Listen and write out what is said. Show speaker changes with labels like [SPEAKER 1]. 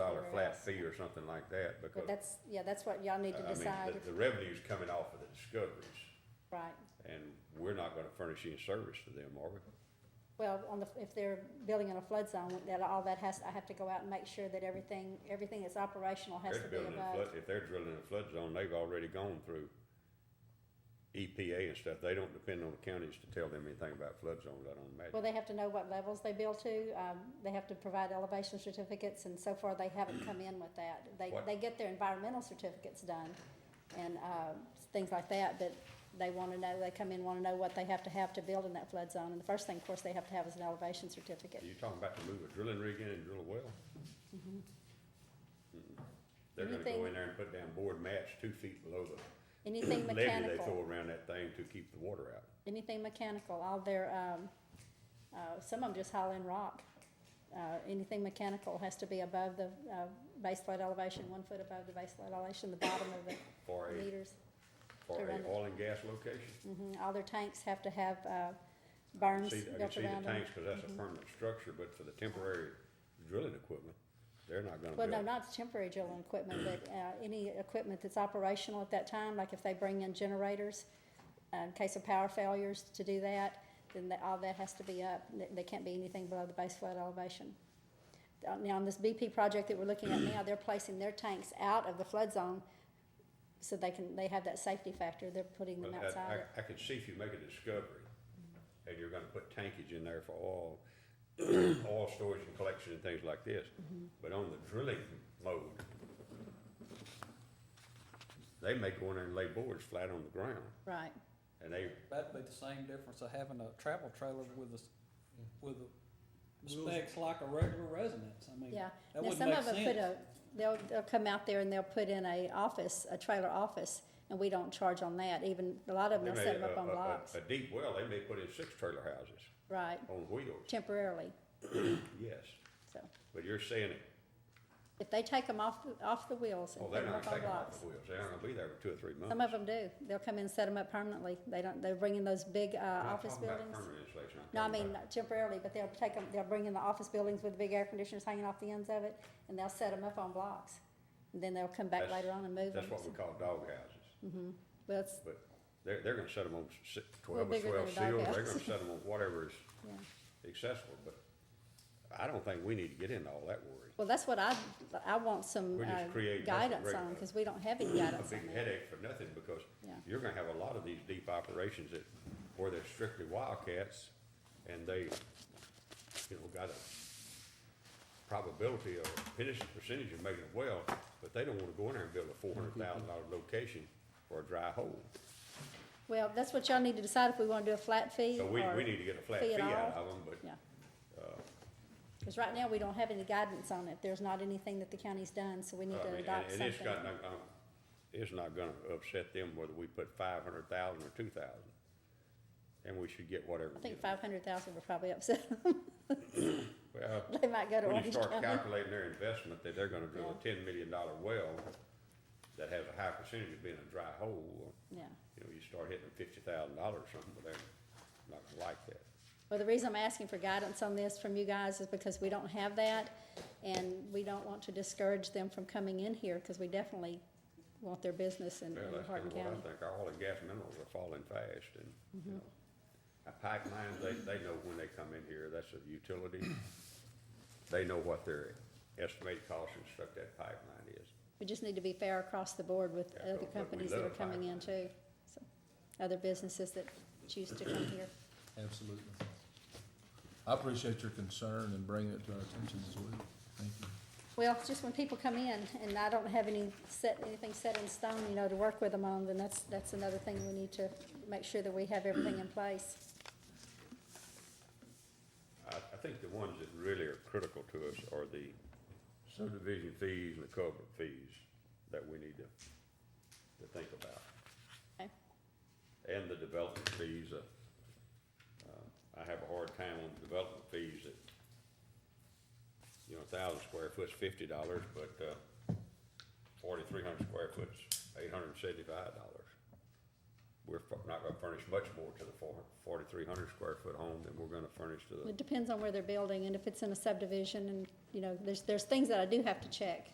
[SPEAKER 1] flat fee or something like that,
[SPEAKER 2] But
[SPEAKER 1] because,
[SPEAKER 2] that's, yeah, that's what y'all need to
[SPEAKER 1] I mean,
[SPEAKER 2] decide,
[SPEAKER 1] the, the revenue's coming off of the discoveries,
[SPEAKER 2] right?
[SPEAKER 1] and we're not gonna furnish any service to them, are we?
[SPEAKER 2] Well, on the, if they're building in a flood zone, that, all that has, I have to go out and make sure that everything, everything that's operational has to
[SPEAKER 1] They're
[SPEAKER 2] be
[SPEAKER 1] building in a
[SPEAKER 2] above.
[SPEAKER 1] flood, if they're drilling in a flood zone, they've already gone through EPA and stuff, they don't depend on the counties to tell them anything about flood zones, I don't imagine.
[SPEAKER 2] Well, they have to know what levels they build to, um, they have to provide elevation certificates, and so far, they haven't come in with that. They,
[SPEAKER 1] What-
[SPEAKER 2] they get their environmental certificates done and, um, things like that, but they wanna know, they come in, wanna know what they have to have to build in that flood zone, and the first thing, of course, they have to have is an elevation certificate.
[SPEAKER 1] You're talking about to move a drilling rig in and drill a well? Mm-mm. They're gonna go
[SPEAKER 2] Mm-hmm. Anything-
[SPEAKER 1] in there and put down board mats two feet below the
[SPEAKER 2] Anything
[SPEAKER 1] levee they
[SPEAKER 2] mechanical.
[SPEAKER 1] throw around that thing to keep the water out.
[SPEAKER 2] anything mechanical, all their, um, uh, some of them just haul in rock. Uh, anything mechanical has to be above the, uh, base flood elevation, one foot above the base flood elevation, the bottom of the
[SPEAKER 1] For a,
[SPEAKER 2] meters.
[SPEAKER 1] for
[SPEAKER 2] run it.
[SPEAKER 1] a oil and gas location.
[SPEAKER 2] hmm all their tanks have to have, uh,
[SPEAKER 1] I can
[SPEAKER 2] burns
[SPEAKER 1] see- I can
[SPEAKER 2] built
[SPEAKER 1] see the
[SPEAKER 2] around Mm-hmm. them.
[SPEAKER 1] tanks, cause that's a permanent structure, but for the temporary drilling equipment, they're not gonna
[SPEAKER 2] Well, no,
[SPEAKER 1] build.
[SPEAKER 2] not temporary drilling equipment, but, uh, any equipment that's operational at that time, like if they bring in generators, uh, in case of power failures to do that, then that, all that has to be up, There- there can't be anything below the base flood elevation. Uh, Now, on this BP project that we're looking at now, they're placing their tanks out of the flood zone, so they can, they have that safety factor, they're putting them
[SPEAKER 1] Well,
[SPEAKER 2] outside. Mm-hmm.
[SPEAKER 1] I, I, I can see if you make a discovery, and you're gonna put tankage in there for oil, oil storage and collection and things like this,
[SPEAKER 2] Mm-hmm.
[SPEAKER 1] but on the drilling mode, they may go in there and lay boards flat on the ground,
[SPEAKER 2] Right,
[SPEAKER 1] and they,
[SPEAKER 3] That'd be the same difference of having a travel trailer with a, s- with a specs like a regular residence, I mean,
[SPEAKER 2] yeah.
[SPEAKER 3] that
[SPEAKER 2] Now,
[SPEAKER 3] wouldn't
[SPEAKER 2] some
[SPEAKER 3] make
[SPEAKER 2] of them put
[SPEAKER 3] sense.
[SPEAKER 2] a, they'll, they'll come out there and they'll put in a office, a trailer office, and we don't charge on that, even, a lot of
[SPEAKER 1] they
[SPEAKER 2] them will
[SPEAKER 1] may,
[SPEAKER 2] set
[SPEAKER 1] a,
[SPEAKER 2] them up on
[SPEAKER 1] a- a-
[SPEAKER 2] blocks,
[SPEAKER 1] a deep well, they may put in six trailer houses
[SPEAKER 2] right,
[SPEAKER 1] on wheels,
[SPEAKER 2] temporarily,
[SPEAKER 1] yes,
[SPEAKER 2] so.
[SPEAKER 1] but you're saying,
[SPEAKER 2] If they take them off, off the wheels
[SPEAKER 1] oh,
[SPEAKER 2] and put
[SPEAKER 1] they're
[SPEAKER 2] them
[SPEAKER 1] not
[SPEAKER 2] up on
[SPEAKER 1] taking
[SPEAKER 2] blocks.
[SPEAKER 1] off the wheels, they're not gonna be there for two or three months.
[SPEAKER 2] Some of them do, they'll come in and set them up permanently, they don't, they bring in those big, uh,
[SPEAKER 1] I'm not
[SPEAKER 2] office
[SPEAKER 1] talking about
[SPEAKER 2] buildings.
[SPEAKER 1] permanent installation, I'm
[SPEAKER 2] No, I
[SPEAKER 1] talking
[SPEAKER 2] mean
[SPEAKER 1] about-
[SPEAKER 2] temporarily, but they'll take them, they'll bring in the office buildings with the big air conditioners hanging off the ends of it, and they'll set them up on blocks. And then they'll come back
[SPEAKER 1] That's-
[SPEAKER 2] later on and move them.
[SPEAKER 1] That's what we call dog houses.
[SPEAKER 2] Mm. Well, it's,
[SPEAKER 1] But they're, they're gonna set them on si- twelve or
[SPEAKER 2] bigger
[SPEAKER 1] twelve
[SPEAKER 2] than
[SPEAKER 1] seals,
[SPEAKER 2] a dog
[SPEAKER 1] they're
[SPEAKER 2] house.
[SPEAKER 1] gonna set them on whatever is
[SPEAKER 2] yeah.
[SPEAKER 1] accessible, but I don't think we need to get into all that worry.
[SPEAKER 2] Well, that's what I, I want some
[SPEAKER 1] We just
[SPEAKER 2] uh,
[SPEAKER 1] create nothing
[SPEAKER 2] guidance on,
[SPEAKER 1] regular.
[SPEAKER 2] cause we don't have any
[SPEAKER 1] A
[SPEAKER 2] guidance on
[SPEAKER 1] big
[SPEAKER 2] that.
[SPEAKER 1] headache for nothing, because
[SPEAKER 2] Yeah.
[SPEAKER 1] you're gonna have a lot of these deep operations that, where they're strictly wildcats, and they, you know, got a probability or percentage, percentage of making it well, but they don't wanna go in there and build a four hundred thousand dollar location for a dry hole.
[SPEAKER 2] Well, that's what y'all need to decide if we wanna do a flat fee
[SPEAKER 1] So
[SPEAKER 2] or.
[SPEAKER 1] we, we need to get a flat
[SPEAKER 2] fee
[SPEAKER 1] fee
[SPEAKER 2] at
[SPEAKER 1] out
[SPEAKER 2] all?
[SPEAKER 1] of Uh, them, but
[SPEAKER 2] Yeah. Cause right now, we don't have any guidance on it. There's not anything that the county's done, so we need
[SPEAKER 1] I
[SPEAKER 2] to
[SPEAKER 1] mean,
[SPEAKER 2] adopt
[SPEAKER 1] Uh, And and it's
[SPEAKER 2] something.
[SPEAKER 1] got, um, it's not gonna upset them whether we put five hundred thousand or two thousand. And we should get whatever.
[SPEAKER 2] I
[SPEAKER 1] we
[SPEAKER 2] think
[SPEAKER 1] get.
[SPEAKER 2] five hundred thousand were probably upset.
[SPEAKER 1] Well,
[SPEAKER 2] They might go to
[SPEAKER 1] when you
[SPEAKER 2] Orange
[SPEAKER 1] start
[SPEAKER 2] County.
[SPEAKER 1] calculating their investment, that they're gonna drill a ten million dollar well that has a high percentage of being a dry hole, well,
[SPEAKER 2] Yeah.
[SPEAKER 1] you know, you start hitting fifty thousand dollars or something, but they're not gonna like that.
[SPEAKER 2] Well, the reason I'm asking for guidance on this from you guys is because we don't have that, and we don't want to discourage them from coming in here, because we definitely want their business in,
[SPEAKER 1] Well,
[SPEAKER 2] in
[SPEAKER 1] that's
[SPEAKER 2] Hardin
[SPEAKER 1] kinda what I
[SPEAKER 2] County.
[SPEAKER 1] think, our oil and gas minerals are falling fast and, you know. Our pipelines, they, they know when they come in here, that's a utility. They know what their estimated cost to construct that pipeline is.
[SPEAKER 2] We just need to be fair across the board with
[SPEAKER 1] Yeah, but-
[SPEAKER 2] other
[SPEAKER 1] but we
[SPEAKER 2] companies that are
[SPEAKER 1] love
[SPEAKER 2] coming in too, so, other businesses that choose to come here.
[SPEAKER 4] Absolutely. I appreciate your concern and bringing it to our attention as well. Thank you.
[SPEAKER 2] Well, just when people come in, and I don't have any set, anything set in stone, you know, to work with them on, then that's, that's another thing we need to make sure that we have everything in place.
[SPEAKER 1] I, I think the ones that really are critical to us are the subdivision fees and the culvert fees that we need to, to think about.
[SPEAKER 2] Okay.
[SPEAKER 1] And the development fees, uh, uh, I have a hard time on development fees that, you know, a thousand square foot's fifty dollars, but, uh, forty-three hundred square foot's eight hundred and seventy-five dollars. We're fu- not gonna furnish much more to the four, forty-three hundred square foot home than we're gonna furnish to the
[SPEAKER 2] It depends on where they're building, and if it's in a subdivision, and, you know, there's, there's things that I do have to check.